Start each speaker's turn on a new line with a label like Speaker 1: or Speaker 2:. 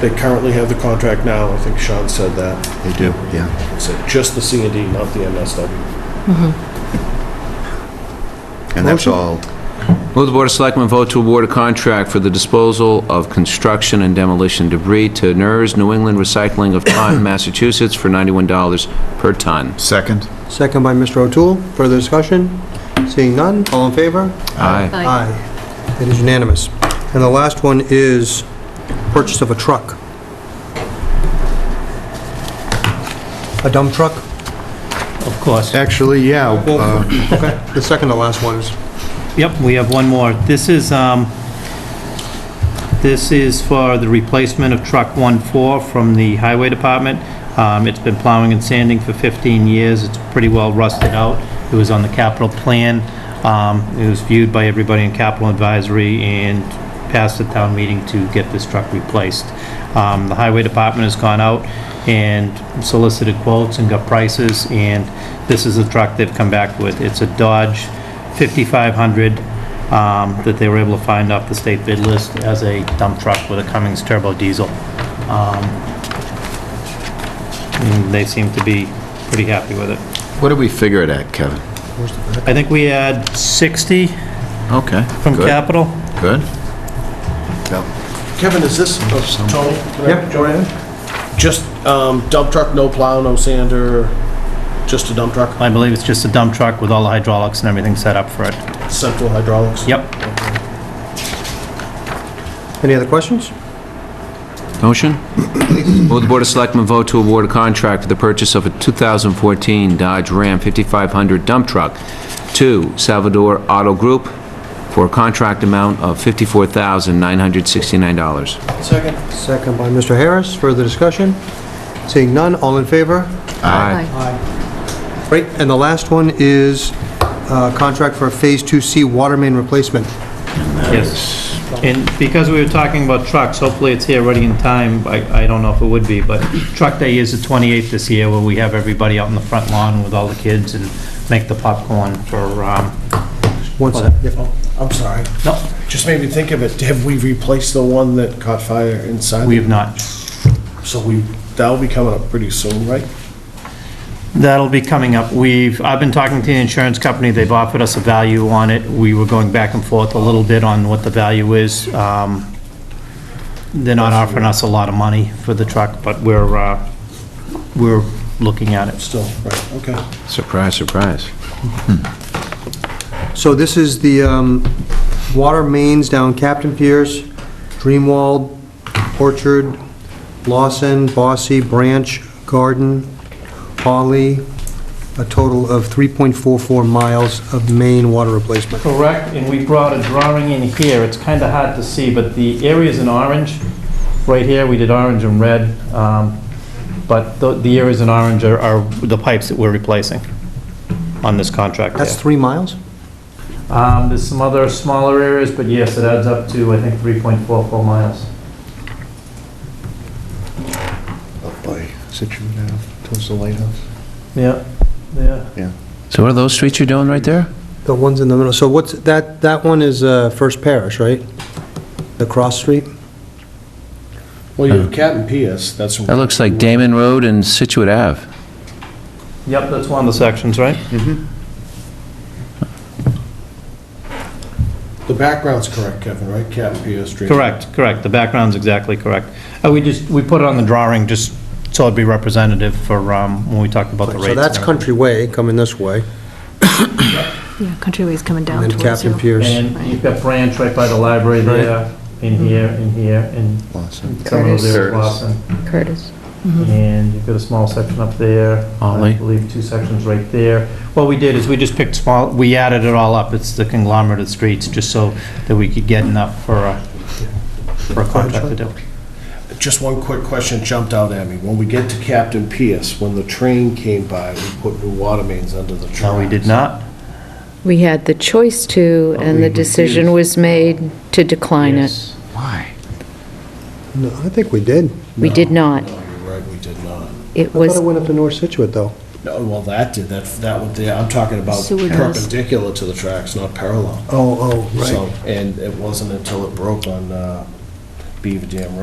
Speaker 1: They currently have the contract now, I think Sean said that.
Speaker 2: They do, yeah.
Speaker 1: He said just the C and D, not the MSW.
Speaker 2: And that's all,
Speaker 3: Will the Board of Selectmen vote to award a contract for the disposal of construction and demolition debris to NERS New England Recycling of Taunton, Massachusetts for $91 per ton?
Speaker 2: second?
Speaker 4: Second by Mr. O'Toole. Further discussion? Seeing none, all in favor?
Speaker 3: Aye.
Speaker 4: Aye. It is unanimous. And the last one is purchase of a truck. A dump truck?
Speaker 5: Of course.
Speaker 2: Actually, yeah,
Speaker 4: Well,
Speaker 2: uh,
Speaker 4: okay, the second to last one is,
Speaker 5: Yep, we have one more. This is, um, this is for the replacement of Truck 14 from the Highway Department. Um, It's been plowing and sanding for 15 years. It's pretty well rusted out. It was on the capital plan. Um, It was viewed by everybody in capital advisory and passed the town meeting to get this truck replaced. Um, The Highway Department has gone out and solicited quotes and got prices, and this is the truck they've come back with. It's a Dodge 5500 um, that they were able to find off the state bid list as a dump truck with a Cummins turbo diesel. Um, and They seem to be pretty happy with it.
Speaker 3: What do we figure it at, Kevin?
Speaker 5: I think we had 60
Speaker 3: Okay.
Speaker 5: from
Speaker 3: good,
Speaker 5: capital.
Speaker 3: Good.
Speaker 1: Kevin, is this, oh, Tony? can I-
Speaker 4: Yep, go right ahead.
Speaker 1: Just um, dump truck, no plow, no sander, just a dump truck,
Speaker 5: I believe it's just a dump truck with all the hydraulics and everything set up for it.
Speaker 1: central hydraulics?
Speaker 5: Yep.
Speaker 4: Any other questions?
Speaker 3: Motion? Will the Board of Selectmen vote to award a contract for the purchase of a 2014 Dodge Ram 5500 dump truck to Salvador Auto Group for a contract amount of $54,969?
Speaker 1: Second.
Speaker 4: Second by Mr. Harris. Further discussion? Seeing none, all in favor? Great, and the last one is uh, contract for a Phase 2C water main replacement.
Speaker 5: Yes. And because we were talking about trucks, hopefully it's here ready in time. I, I don't know if it would be, but Truck Day is the 28th this year where we have everybody out in the front lawn with all the kids and make the popcorn for, um,
Speaker 4: One
Speaker 5: Hold
Speaker 4: second. Yeah.
Speaker 1: Oh, I'm sorry,
Speaker 5: no,
Speaker 1: just made me think of it, have we replaced the one that caught fire inside?
Speaker 5: we have not.
Speaker 1: So we, that'll be coming up pretty soon, right?
Speaker 5: That'll be coming up. We've, I've been talking to the insurance company. They've offered us a value on it. We were going back and forth a little bit on what the value is. Um, They're not offering us a lot of money for the truck, but we're, uh, we're looking at it.
Speaker 1: Still, right, okay.
Speaker 3: Surprise, surprise.
Speaker 4: So this is the um, water mains down Captain Pierce, Dreamwald, Orchard, Lawson, Bossy, Branch, Garden, Holly, a total of 3.44 miles of main water replacement.
Speaker 5: Correct, and we brought a drawing in here, it's kind of hard to see, but the area's in orange, right here, we did orange and red, um, but the- the areas in orange are- are the pipes that we're replacing on this contract
Speaker 4: That's
Speaker 5: there.
Speaker 4: three miles?
Speaker 5: Um, There's some other smaller areas, but yes, it adds up to, I think, 3.44 miles.
Speaker 2: Up by Situate Ave, towards the lighthouse.
Speaker 5: Yeah, yeah.
Speaker 3: So what are those streets you're doing right there?
Speaker 4: The one's in the middle. So what's, that, that one is uh, First Parish, right? The cross street?
Speaker 1: Well, you have Cat and P.S., that's.
Speaker 3: That looks like Damon Road and Situate Ave.
Speaker 5: Yep, that's one of the sections, right?
Speaker 1: The background's correct, Kevin, right? Cat and P.S. Street.
Speaker 5: Correct, correct, the background's exactly correct. Uh, We just, we put it on the drawing, just so it'd be representative for um, when we talk about the rates.
Speaker 4: So that's
Speaker 5: and everything.
Speaker 4: Country Way coming this way,
Speaker 6: Yeah, Countryway's coming down
Speaker 4: and then
Speaker 6: towards you.
Speaker 4: Captain Pierce.
Speaker 5: And you've got Branch right by the library
Speaker 4: Right.
Speaker 5: there, in here, in here, and
Speaker 2: Lawson.
Speaker 5: some of those areas,
Speaker 2: Curtis.
Speaker 5: Lawson.
Speaker 7: Curtis.
Speaker 5: And you've got a small section up there.
Speaker 3: Ollie.
Speaker 5: I believe two sections right there. What we did is we just picked small, we added it all up. It's the conglomerate of streets, just so that we could get enough for a, for a contract to do.
Speaker 1: Just one quick question jumped out at me. When we get to Captain P.S., when the train came by, we put new water mains under the tracks.
Speaker 5: No, we did not.
Speaker 7: We had the choice to, and the decision was made to decline it.
Speaker 5: Yes.
Speaker 3: Why?
Speaker 4: No, I think we did.
Speaker 7: We did not.
Speaker 1: No, you're right, we did not.
Speaker 7: It
Speaker 4: I thought
Speaker 7: was,
Speaker 4: it went up to North Situate, though.
Speaker 1: No, well, that did, that, that would, I'm talking about
Speaker 6: Sewer does.
Speaker 1: perpendicular to the tracks, not parallel.
Speaker 4: Oh, oh, right.
Speaker 1: So, And it wasn't until it broke on uh, Beaver Dam Road